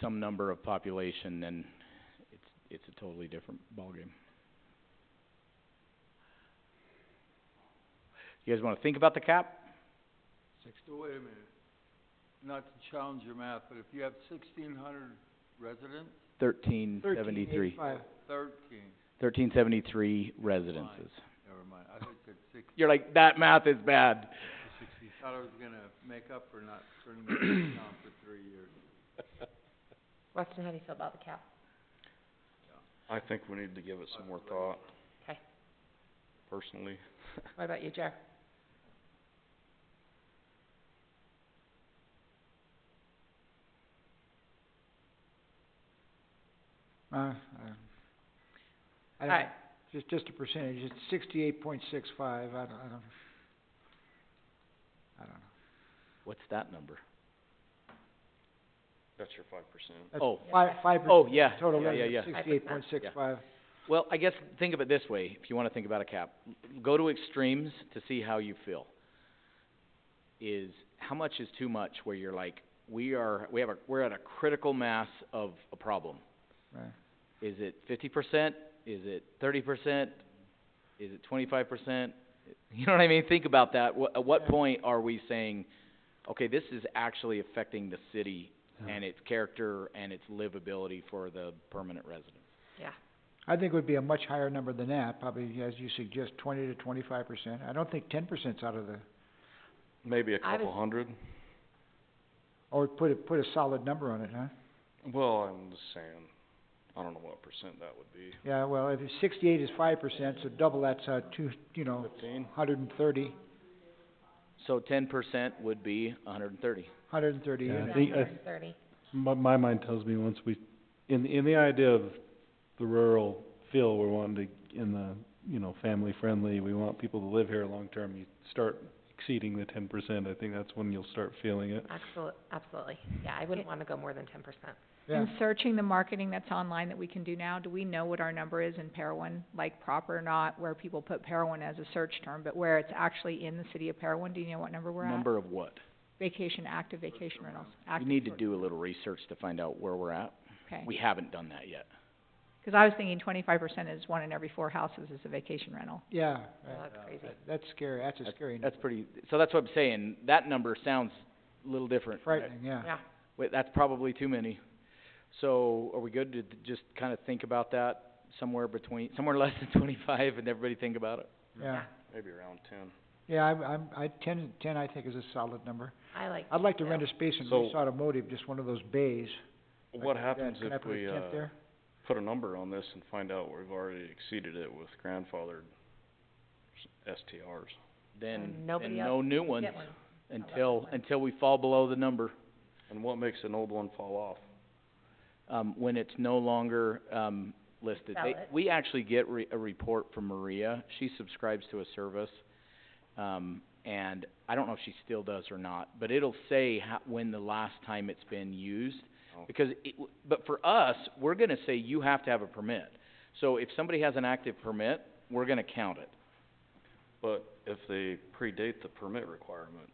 some number of population, then it's, it's a totally different ballgame. You guys wanna think about the cap? So wait a minute, not to challenge your math, but if you have sixteen hundred residents, Thirteen seventy-three. thirteen, Thirteen seventy-three residences. never mind, I thought you said six, You're like, that math is bad. thought I was gonna make up for not turning my head down for three years. Weston, how do you feel about the cap? I think we need to give it some more thought. 'Kay. Personally. What about you, Jer? Uh, I, I don't, Alright, just, just a percentage, it's sixty-eight point six five, I don't, I don't, I don't know. What's that number? That's your five percent. That's Oh. Five, five Oh, percent yeah, total yeah, yeah, yeah. revenue, sixty-eight point six five. Well, I guess think of it this way, if you wanna think about a cap, go to extremes to see how you feel. Is, how much is too much where you're like, we are, we have a, we're at a critical mass of a problem? Right. Is it fifty percent? Is it thirty percent? Is it twenty-five percent? You know what I mean? Think about that. Wha- at what Yeah. point are we saying, okay, this is actually affecting the city and its character and its livability for the permanent residents? yeah, I think it would be a much higher number than that, probably, as you suggest, twenty to twenty-five percent, I don't think ten percent's out of the, Maybe a I couple was- hundred. or put a, put a solid number on it, huh? Well, I'm just saying, I don't know what percent that would be. Yeah, well, if it's sixty-eight is five percent, so double that's, uh, two, you know, Fifteen? hundred and thirty, So ten percent would be hundred and thirty. hundred and thirty Yeah, I units. think- I- hundred and thirty. My, my mind tells me once we, in, in the idea of the rural feel, we're wanting to, in the, you know, family friendly, we want people to live here long-term, you start exceeding the ten percent, I think that's when you'll start feeling it. Absol- absolutely. Yeah, I wouldn't wanna go more than ten percent. Yeah. In searching the marketing that's online that we can do now, do we know what our number is in Parowan, like proper or not, where people put Parowan as a search term, but where it's actually in the city of Parowan, do you know what number we're at? Number of what? Vacation, active vacation rentals, We active. need to sort- do a little research to find out where we're at. Okay, We haven't done that yet. cause I was thinking twenty-five percent is one in every four houses is a vacation rental. Yeah, Well, right. that's crazy. That- that's scary, that's a That's- scary, That's pretty, so that's what I'm saying, that number sounds a little different. frightening, yeah. Yeah, Wait, that's probably too many. So are we good to th- just kind of think about that somewhere between, somewhere less than twenty-five and everybody think about it? Yeah, Maybe around ten. yeah, I'm, I'm, I, ten, ten I think is a solid number. I like I'd like to Yeah. rent a space in So- Reese Automotive, just one of those bays. like What that. happens Can I if put a we, tent uh, there? put a number on this and find out we've already exceeded it with grandfathered s- STRs? Then, And then nobody no new to ones get one. until, until we fall below the number. And what makes an old one fall off? um, when it's no longer, um, listed. They- Valid. We actually get re- a report from Maria, she subscribes to a service, um, and I don't know if she still does or not, but it'll say ho- when the last time it's been used. Oh. Because it, w- but for us, we're gonna say you have to have a permit. So if somebody has an active permit, we're gonna count it. But if they predate the permit requirement,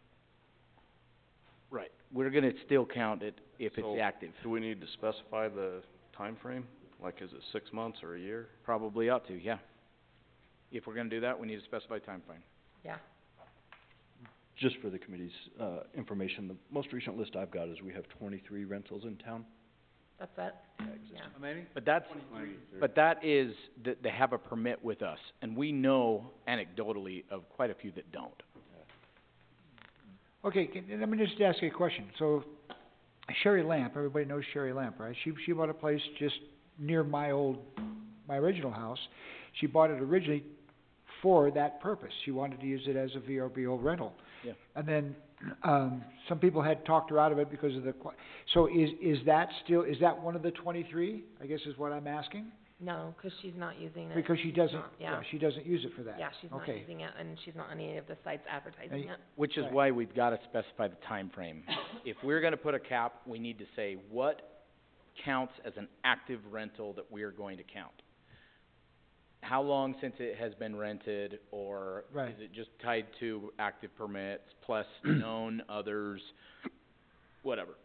Right. We're gonna still count it if So- it's active. do we need to specify the time frame? Like, is it six months or a year? Probably ought to, yeah. If we're gonna do that, we need to specify time frame. Yeah, just for the committee's, uh, information, the most recent list I've got is we have twenty-three rentals in town. that's it. Yeah. How many? But that's, Twenty-three. But that is, that they have a permit with us, and we know anecdotally of quite a few that don't. Okay, can, let me just ask you a question, so Sherry Lamp, everybody knows Sherry Lamp, right? She, she bought a place just near my old, my original house. She bought it originally for that purpose, she wanted to use it as a VRBO rental. Yeah. And then, um, some people had talked her out of it because of the qui- so is, is that still, is that one of the twenty-three, I guess is what I'm asking? No, 'cause she's not using it. Because she doesn't, not, yeah. yeah, she doesn't use it for that. Yeah, she's not okay. using it, and she's not on any of the sites advertising Hey. it. Which is Right. why we've gotta specify the time frame. If we're gonna put a cap, we need to say what counts as an active rental that we are going to count. How long since it has been rented, or Right. is it just tied to active permits plus known others, whatever.